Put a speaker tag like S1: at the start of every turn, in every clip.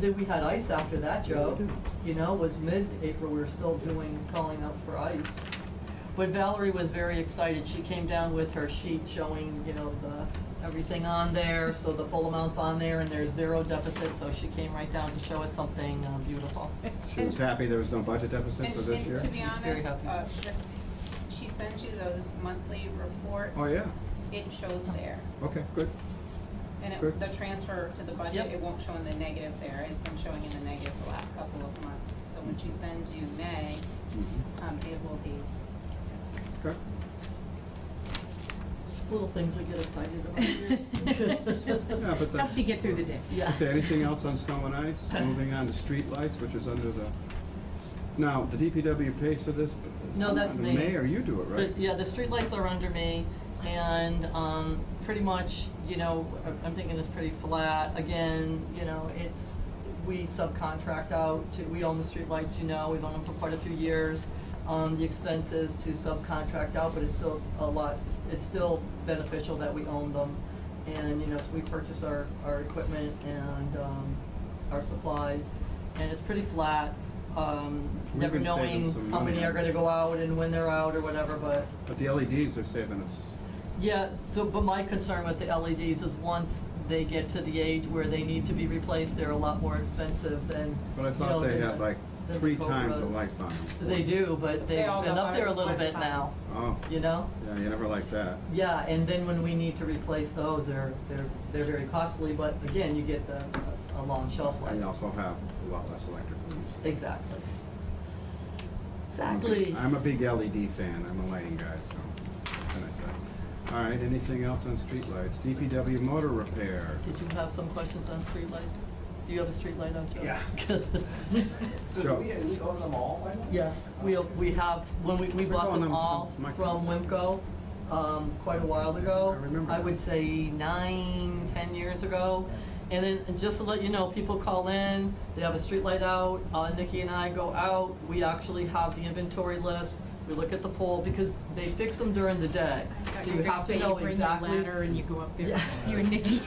S1: then we had ice after that, Joe, you know, was mid-April, we were still doing, calling up for ice. But Valerie was very excited, she came down with her sheet showing, you know, the, everything on there, so the full amount's on there, and there's zero deficit, so she came right down to show us something uh, beautiful.
S2: She was happy there was no budget deficit
S3: And,
S2: for this
S3: and to be
S1: He's
S2: year?
S1: very
S3: honest,
S1: happy.
S3: uh, this, she sends you those monthly reports.
S2: Oh, yeah,
S3: It shows there,
S2: okay, good.
S3: and
S2: Good.
S3: it, the transfer to the budget,
S1: Yep.
S3: it won't show in the negative there, it's been showing in the negative the last couple of months. So when she sends you May,
S2: Mhm.
S3: um, it will be,
S2: Okay.
S1: Just little things we get excited about.
S2: Yeah, but the-
S4: Helps you get through the day.
S1: Yeah.
S2: Is there anything else on snow and ice? Moving on to streetlights, which is under the, now, the DPW pays for this? but it's
S1: No, that's
S2: under
S1: me.
S2: Mayor, you do it,
S1: The-
S2: right?
S1: Yeah, the streetlights are under me, and um, pretty much, you know, I- I'm thinking it's pretty flat. Again, you know, it's, we subcontract out to, we own the streetlights, you know, we've owned them for quite a few years. Um, The expenses to subcontract out, but it's still a lot, it's still beneficial that we own them. And, you know, so we purchase our, our equipment and um, our supplies, and it's pretty flat. um,
S2: We've
S1: Never
S2: been saving
S1: knowing
S2: some
S1: how many
S2: money.
S1: are gonna go out and when they're out or whatever, but,
S2: But the LEDs are saving us.
S1: yeah, so, but my concern with the LEDs is once they get to the age where they need to be replaced, they're a lot more expensive than,
S2: But I
S1: you know,
S2: thought they
S1: than
S2: had
S1: the-
S2: like
S1: than the
S2: three times the
S1: Cobras.
S2: lights on them.
S1: They do, but
S3: They
S1: they've been
S3: all go
S1: up there a
S3: high-
S1: little bit
S3: high
S1: now,
S2: Oh,
S1: you know?
S2: yeah, you never like that.
S1: Yeah, and then when we need to replace those, they're, they're, they're very costly, but again, you get the, a long shelf life.
S2: And you also have a lot less electrical use.
S1: Exactly.
S2: I'm a big-
S1: Exactly.
S2: I'm a big LED fan, I'm a lighting guy, so, what can I say? All right, anything else on streetlights? DPW motor repair.
S1: Did you have some questions on streetlights? Do you have a streetlight on, Joe? Yeah.
S5: So
S2: Sure.
S5: do we, we own them all by now?
S1: Yes, we, we have, when we, we
S2: We're
S1: bought
S2: going
S1: them
S2: on
S1: all
S2: some smart-
S1: from Wimco, um, quite a while ago.
S2: I remember that.
S1: would say nine, ten years ago. And then, and just to let you know, people call in, they have a street light out, uh, Nikki and I go out, we actually have the inventory list, we look at the pole, because they fix them during the day. So you have to know exactly.
S4: You bring your ladder and you go up there,
S1: Yeah.
S4: you and Nikki.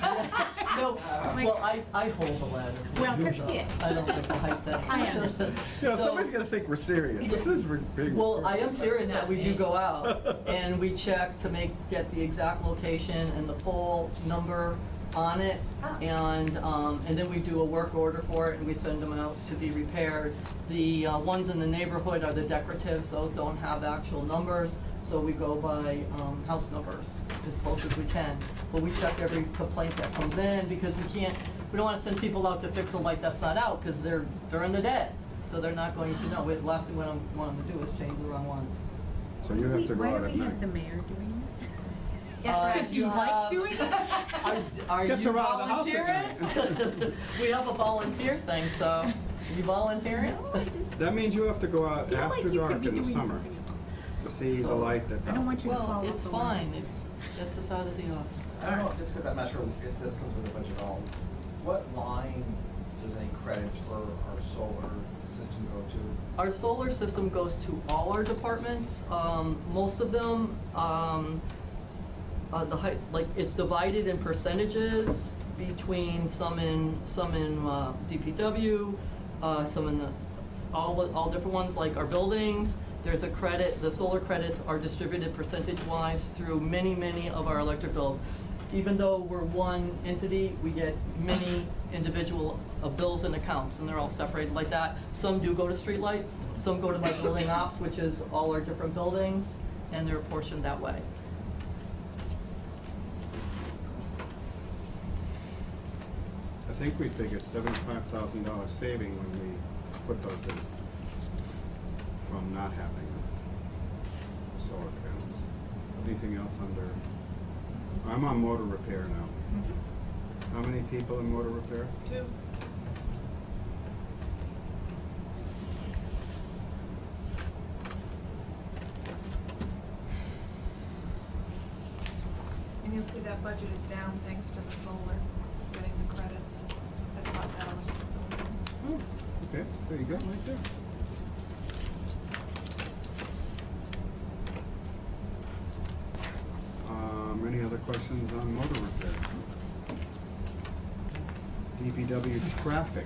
S1: No,
S4: my
S1: well, I, I hold the ladder.
S4: Well, 'cause-
S1: So, I don't think I'll hike that.
S4: I understand.
S5: You know,
S1: So-
S5: somebody's gonna think we're serious. This is re- big.
S1: Well, I am serious that we do
S4: Not me.
S1: go out and we check to make, get the exact location and the pole number on it.
S4: Ah.
S1: And, um, and then we do a work order for it and we send them out to be repaired. The uh, ones in the neighborhood are the decoratives, those don't have actual numbers, so we go by, um, house numbers as close as we can. But we check every complaint that comes in because we can't, we don't wanna send people out to fix a light that's not out, cause they're during the day. So they're not going to know. The last thing we want want them to do is change the wrong ones.
S2: So you have to go out
S4: Why do
S2: at
S4: we have the
S2: night.
S4: mayor doing this?
S1: That's right.
S4: Because you
S1: You
S4: like
S1: have-
S4: doing it?
S1: Are, are you
S2: Gets her out of the house
S1: volunteering?
S2: at
S1: We have a volunteer thing, so you volunteering?
S4: No, I just
S2: That means you have to go out
S4: feel like
S2: after
S4: you could
S2: dark
S4: be
S2: in the
S4: doing
S2: summer
S4: something else.
S2: to see the
S1: So-
S2: light that's
S4: I
S2: out.
S4: don't want you to follow
S1: Well,
S4: up
S1: it's
S4: the line.
S1: fine. It gets us out of the office.
S5: I don't know, just because I'm not sure if this comes with a budget at all. What line does any credits for our solar system go to?
S1: Our solar system goes to all our departments. Um, most of them, um, uh, the height, like, it's divided in percentages between some in, some in, uh, DPW, uh, some in the, all, all different ones, like our buildings. There's a credit, the solar credits are distributed percentage-wise through many, many of our electric bills. Even though we're one entity, we get many individual uh, bills and accounts, and they're all separated like that. Some do go to streetlights, some go to my building ops, which is all our different buildings, and they're portioned that way.
S2: I think we figured seventy-five thousand dollar saving when we put those in from not having solar panels. Anything else under, I'm on motor repair now. How many people in motor repair?
S5: Two.
S6: And you'll see that budget is down thanks to the solar, getting the credits at five thousand.
S2: Oh, okay, there you go, right there. Um, any other questions on motor repair? DPW traffic.